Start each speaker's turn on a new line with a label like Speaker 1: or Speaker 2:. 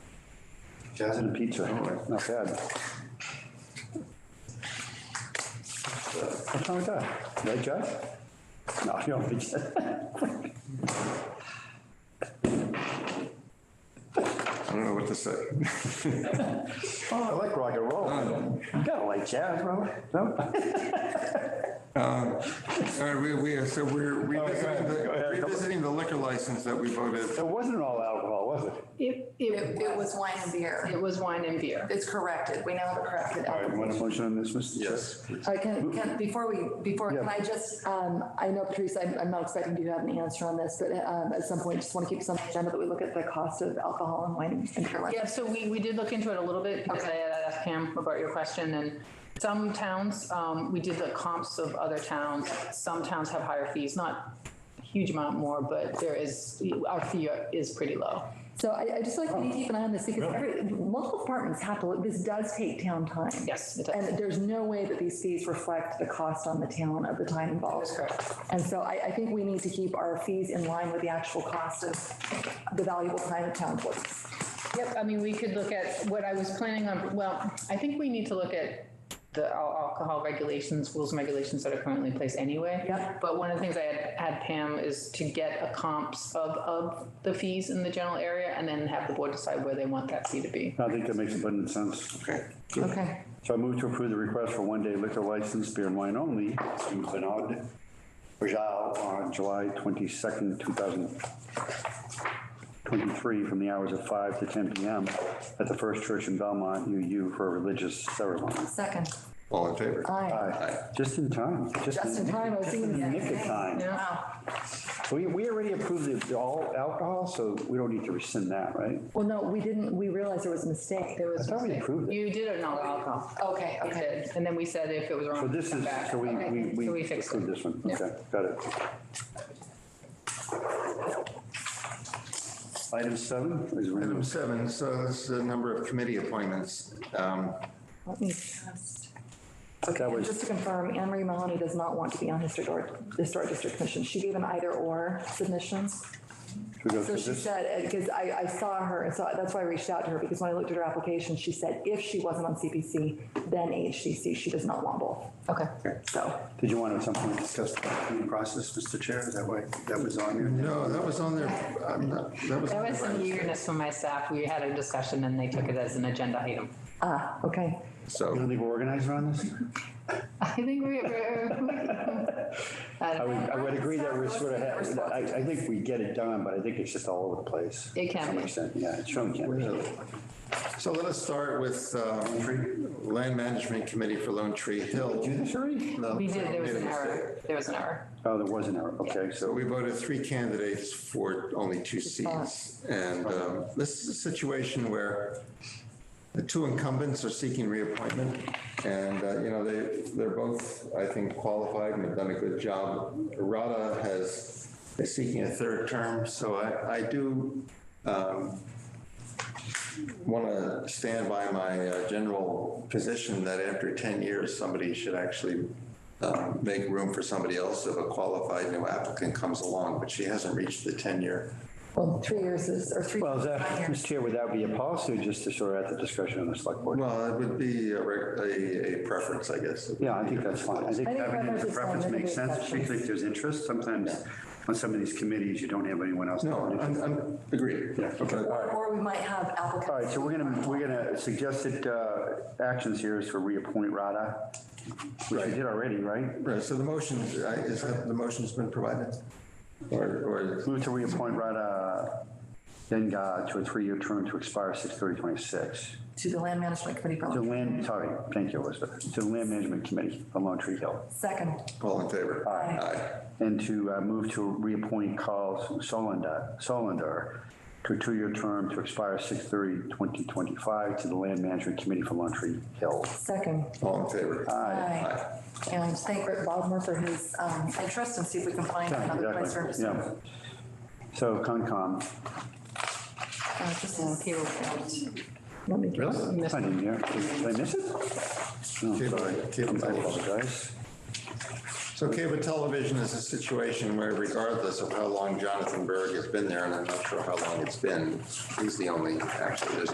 Speaker 1: Jazz and pizza, not bad. What's wrong with that? Right, Jazz? No, I don't think so.
Speaker 2: I don't know what to say.
Speaker 1: Oh, I like rock and roll. Oh, You gotta like jazz, Robert. No?
Speaker 2: All right, we, we, are- so we're
Speaker 1: All right, go ahead,
Speaker 2: revisiting
Speaker 1: go
Speaker 2: the-
Speaker 1: ahead.
Speaker 2: revisiting the liquor license that we voted.
Speaker 1: It wasn't all alcohol, was it?
Speaker 3: It,
Speaker 4: It, it was wine and beer.
Speaker 3: It was wine and beer.
Speaker 4: It's corrected. We now have it corrected.
Speaker 1: All right, want a motion on this, Mr. Chair?
Speaker 4: All right, can, can, before we, before, can
Speaker 1: Yeah.
Speaker 4: I just, um, I know Patrice, I'm, I'm not expecting you to have an answer on this, but, um, at some point, just want to keep some agenda that we look at the cost of alcohol and wine and beer.
Speaker 3: Yeah, so we, we did look into it a little bit because I had asked Pam about your question and some towns, um, we did the comps of other towns. Some towns have higher fees, not huge amount more, but there is, our fee is pretty low.
Speaker 4: So I, I just like to keep an eye on this because every, multiple departments have to, look- this does take town time.
Speaker 3: Yes, it does.
Speaker 4: And there's no way that these fees reflect the cost on the town of the time involved.
Speaker 3: That's correct.
Speaker 4: And so I, I think we need to keep our fees in line with the actual cost of the valuable time of town employees.
Speaker 3: Yep, I mean, we could look at what I was planning on, well, I think we need to look at the al- alcohol regulations, rules and regulations that are currently in place anyway.
Speaker 4: Yep.
Speaker 3: But one of the things I had, had Pam is to get a comps of, of the fees in the general area and then have the board decide where they want that fee to be.
Speaker 1: I think that makes abundant sense.
Speaker 2: Okay.
Speaker 4: Okay.
Speaker 1: So I move to approve the request for one-day liquor license, beer and wine only, in Glenard, Rajal, on July 22nd, 2023, from the hours of 5 to 10 p.m. at the First Church in Belmont, UU, for a religious ceremony.
Speaker 4: Second.
Speaker 2: All in favor?
Speaker 4: Aye.
Speaker 1: Aye. Just in time.
Speaker 4: Just in time, I was
Speaker 1: Just in the
Speaker 4: thinking
Speaker 1: nick of
Speaker 4: that.
Speaker 1: time.
Speaker 3: Yeah.
Speaker 4: Wow.
Speaker 1: We, we already approved the- the all alcohol, so we don't need to rescind that, right?
Speaker 4: Well, no, we didn't, we realized there was a mistake.
Speaker 3: There was.
Speaker 1: I thought we approved it.
Speaker 3: You did it not alcohol.
Speaker 4: Okay,
Speaker 3: We did. And then we said if it was
Speaker 1: So
Speaker 3: wrong,
Speaker 1: this
Speaker 3: come
Speaker 1: is,
Speaker 3: back.
Speaker 1: so we,
Speaker 3: Okay,
Speaker 1: we,
Speaker 3: So
Speaker 1: we
Speaker 3: we fixed
Speaker 1: approved
Speaker 3: it.
Speaker 1: this one.
Speaker 3: Yeah.
Speaker 1: Okay, got it. Item seven is
Speaker 2: Item
Speaker 1: random.
Speaker 2: seven, so this is a number of committee appointments. Um,
Speaker 4: Let me just.
Speaker 1: That
Speaker 4: Okay, and
Speaker 1: was-
Speaker 4: just to confirm, Anne Marie Mahoney does not want to be on historic, historic district commission. She gave an either or submission.
Speaker 1: Should we go
Speaker 4: So
Speaker 1: through
Speaker 4: she
Speaker 1: this?
Speaker 4: said, because I, I saw her, and so that's why I reached out to her, because when I looked at her application, she said if she wasn't on CPC, then HCC, she does not want both. Okay. So,
Speaker 1: Did you want to at some point discuss the appointment process, Mr. Chair? Is that why, that was on there?
Speaker 2: No, that was on there, I'm not, that was.
Speaker 3: There was some eagerness from my staff. We had a discussion and they took it as an agenda item.
Speaker 4: ah, okay.
Speaker 1: You
Speaker 2: So,
Speaker 1: don't think we're organized around this?
Speaker 3: I think we, uh, we're.
Speaker 1: I
Speaker 3: I don't
Speaker 1: would,
Speaker 3: know.
Speaker 1: I would agree that we're sort of, I, I think we get it done, but I think it's just all over the place.
Speaker 3: It can
Speaker 1: To some
Speaker 3: be.
Speaker 1: extent, Yeah, it sure can be.
Speaker 2: so let us start with um, Land Management Committee for Lone Tree
Speaker 1: Did you
Speaker 2: Hill.
Speaker 1: do this already?
Speaker 2: No,
Speaker 3: We did, there was
Speaker 2: made a
Speaker 3: an
Speaker 2: mistake.
Speaker 3: error. There was an error.
Speaker 1: Oh, there was an error. Okay,
Speaker 2: So
Speaker 1: so
Speaker 2: we voted three candidates for only two seats. And um, this is a situation where the two incumbents are seeking reappointment. And, uh, you know, they, they're both, I think, qualified and have done a good job. Rada has, is seeking a third term, so I, I do want to stand by my uh, general position that after 10 years, somebody should actually um, make room for somebody else if a qualified new applicant comes along, but she hasn't reached the 10-year.
Speaker 4: Well, three years is, or three.
Speaker 1: Well, is that,
Speaker 4: five years.
Speaker 1: Mr. Chair, would that be a policy or just to sort of at the discretion of the select board?
Speaker 2: Well, it would be a reg- a, a preference, I guess.
Speaker 1: Yeah, I think that's fine. I think
Speaker 4: I think
Speaker 1: having it as a
Speaker 4: Robert's
Speaker 1: preference
Speaker 4: saying
Speaker 1: makes
Speaker 4: that
Speaker 1: sense,
Speaker 4: it's
Speaker 1: particularly if there's interest. Sometimes on some of these committees, you don't have anyone else.
Speaker 2: No, I'm, I'm, agreed.
Speaker 1: Yeah, okay.
Speaker 2: But-
Speaker 4: Or or we might have applicants.
Speaker 1: All right, so we're gonna, we're gonna, suggested uh, actions here is to reappoint Rada, which we did already, right?
Speaker 2: Right, so the motion, I- is that, the motion's been provided? Or, or,
Speaker 1: Move to reappoint Rada Denga to a three-year term to expire 6/30/26.
Speaker 4: To the land management committee for,
Speaker 1: To
Speaker 4: Lone-
Speaker 1: land, sorry, thank you, Elizabeth, to the Land Management Committee for Lone Tree Hill.
Speaker 4: second,
Speaker 2: all in favor?
Speaker 4: Aye.
Speaker 1: And to uh, move to reappoint Carl Solander, Solander to a two-year term to expire 6/30/2025 to the Land Management Committee for Lone Tree Hill.
Speaker 4: second.
Speaker 2: All in favor?
Speaker 4: Aye.
Speaker 2: Aye.
Speaker 4: And thank Rick Baldwin for his um, interest and see if we can find another vice
Speaker 1: Exactly,
Speaker 4: versa.
Speaker 1: yeah. So Concom,
Speaker 4: Uh, this
Speaker 3: Uh,
Speaker 4: is-
Speaker 3: Cable count.
Speaker 4: Let me get
Speaker 3: Missed
Speaker 1: I didn't hear, did I miss it? No,
Speaker 2: Cable-
Speaker 1: sorry.
Speaker 2: cable
Speaker 1: I
Speaker 2: television.
Speaker 1: apologize.
Speaker 2: So cable television is a situation where regardless of how long Jonathan Berg has been there, and I'm not sure how long it's been, he's the only, actually, there's